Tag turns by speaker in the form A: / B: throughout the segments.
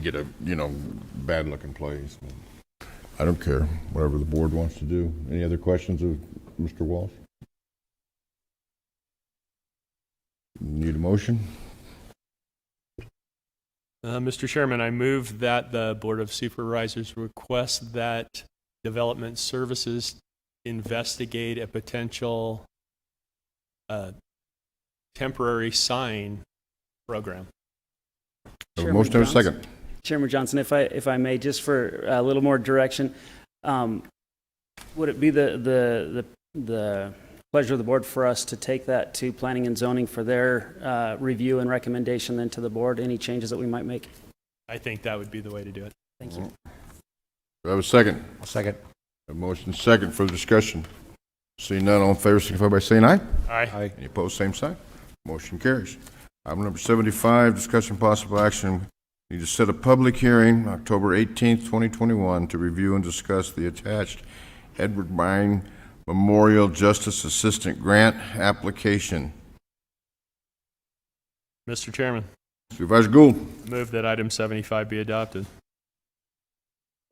A: get a, you know, bad-looking place. I don't care, whatever the board wants to do. Any other questions of Mr. Walsh? Need a motion?
B: Uh, Mr. Chairman, I move that the Board of Supervisors request that Development Services investigate a potential uh, temporary sign program.
A: Have a
C: Chairman
A: motion and a
C: Johnson?
A: second.
C: Chairman Johnson, if I, if I may, just for a little more direction, um, would it be the, the, the, the pleasure of the board for us to take that to planning and zoning for their, uh, review and recommendation then to the board, any changes that we might make?
B: I think that would be the way to do it.
C: Thank you.
A: Do I have a second?
D: Second.
A: A motion second for discussion. Seeing none, all in favor, signify by saying aye.
B: Aye.
D: Aye.
A: Any opposed, same sign. Motion carries. Item number 75, discussion possible action, need to set a public hearing, October 18th, 2021, to review and discuss the attached Edward Mine Memorial Justice Assistant Grant application.
B: Mr. Chairman,
A: Supervisor Gould,
B: move that item 75 be adopted.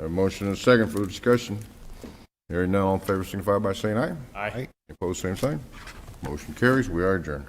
A: have a motion and a second for the discussion. Hearing none, all in favor, signify by saying aye.
B: Aye.
A: Opposed, same sign. Motion carries. We are adjourned.